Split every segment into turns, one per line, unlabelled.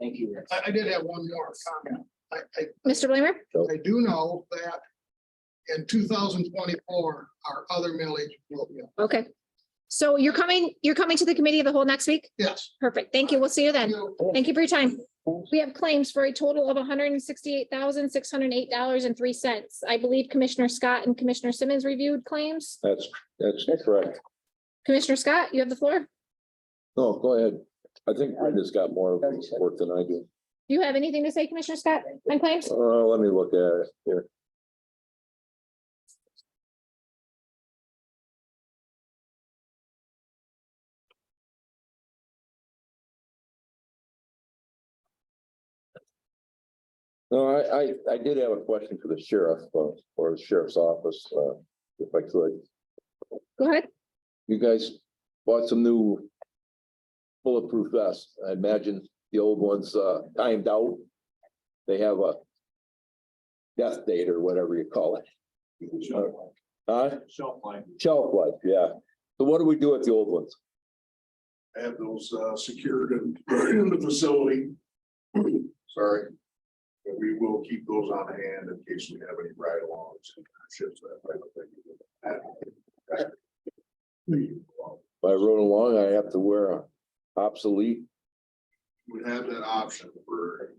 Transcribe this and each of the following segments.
Thank you, Rick.
I, I did have one more comment. I, I,
Mr. Blamer?
I do know that in two thousand twenty-four, our other millage will be, up.
Okay. So you're coming, you're coming to the committee of the whole next week?
yes.
Perfect. Thank you. We'll see you then.
You-
Thank you for your time. We have claims for a total of hundred and sixty-eight thousand, six hundred and eight dollars and three cents. I believe Commissioner Scott and Commissioner Simmons reviewed claims.
That's, that's correct.
Commissioner Scott, you have the floor.
No, go ahead. I think Brenda's got more work than I do.
Do you have anything to say, Commissioner Scott, on claims?
Uh, let me look at it here. No, I, I, I did have a question for the sheriff, uh, or the sheriff's office, uh, if I could.
Go ahead.
You guys bought some new bulletproof vests. I imagine the old ones, uh, timed out. They have a death date or whatever you call it.
Shelf
Huh?
life- Shelf life,
Shelf life, yeah. So what do we do with the old ones?
I have those uh secured in in the facility. Sorry. But we will keep those on hand in case we have any ride alongs and ships. that type of thing.
If I rode along, I have to wear a obsolete.
We have that option for.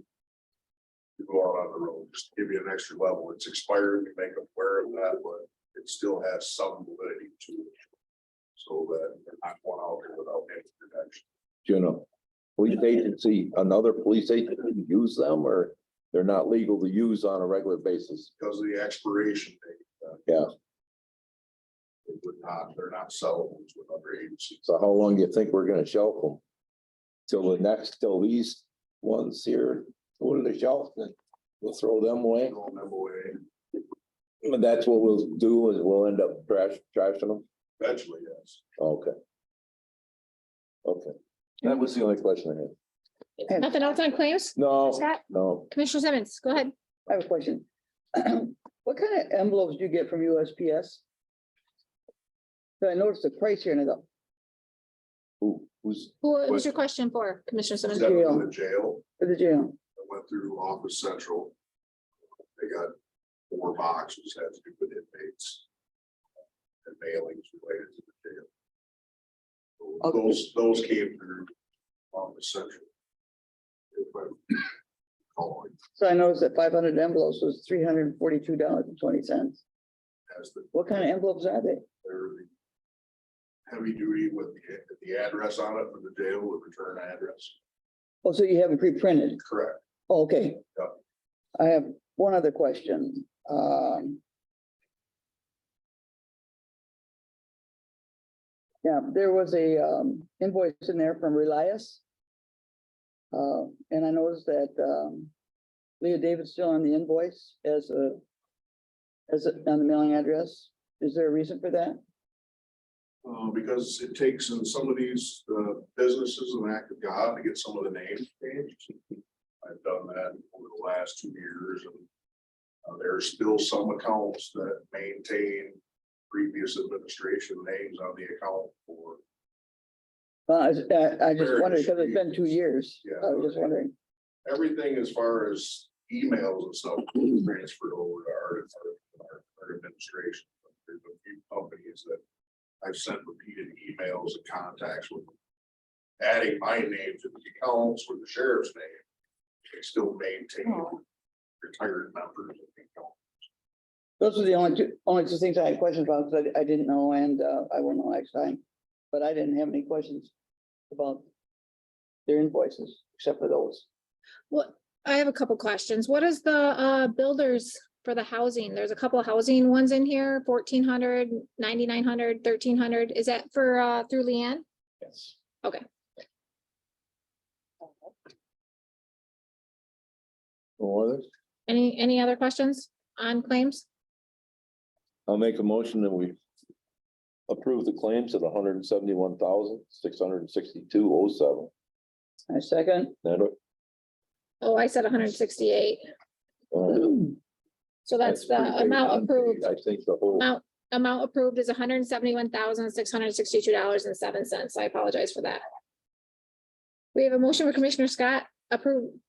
To go out on the road, just to give you an extra level. It's expired, we make them wear it that, but it still has some validity to it. So that they're not going out there without any protection.
you know, police agency, another police agency use them or they're not legal to use on a regular basis.
because of the expiration date. uh,
Yeah.
They would not, they're not sellable to another agency.
So how long do you think we're gonna shelf them? Till the next, till these ones here, go to the shelf and we'll throw them away.
Throw them away
But that's what we'll do is we'll end up trash, trashing them.
eventually, yes.
Okay. Okay, that was the only question I had.
Nothing else on claims?
No,
Scott,
no,
Commissioner Simmons, go ahead.
I have a question. What kind of envelopes do you get from USPS? So I noticed the price here and I go,
who, who's,
Who what was your question for, Commissioner Simmons?
Except for the jail,
for the jail,
I went through Office Central. They got four boxes had to do with inmates. And mailings related to the jail. So
Okay.
Those, those came through Office Central. If I'm calling
so I noticed that five hundred envelopes was three hundred and forty-two dollars and twenty cents.
as the
What kind of envelopes are they?
They're the heavy duty with the, the address on it for the jail with return address.
Oh, so you have it pre-printed?
Correct.
Okay.
Yeah.
I have one other question. Um. Yeah, there was a um invoice in there from Relias. Uh, and I noticed that um Leah David's still on the invoice as a. As a- on the mailing address. Is there a reason for that?
Uh, because it takes in some of these, uh, businesses an act of God to get some of the names changed. I've done that over the last two years and. Uh, there are still some accounts that maintain previous administration names on the account for,
Well, I just- I I just wondered because it's been two
Various
years.
Yeah.
I was just wondering.
everything as far as emails and stuff is transferred over to our, our, our administration. There's a few companies that I've sent repeated emails and contacts with. Adding my name to the accounts with the sheriff's name, they still maintain retired members. of the account.
Those were the only two, only two things I had questions about, because I, I didn't know, and, uh, I will know next time. But I didn't have any questions about their invoices, except for those.
What, I have a couple questions. What is the uh builders for the housing? There's a couple housing ones in here, 1400, 9900, 1300. Is that for uh through Leanne?
yes.
Okay.
Or others?
Any, any other questions on claims?
I'll make a motion that we approve the claims at hundred and seventy-one thousand, six hundred and sixty-two oh seven.
I second.
That,
Oh, I said hundred and sixty-eight.
uh,
So that's the
pretty big
amount
on the-
approved.
I think the whole,
Amount, amount approved is hundred and seventy-one thousand, six hundred and sixty-two dollars and seven cents. I apologize for that. We have a motion for Commissioner Scott approve,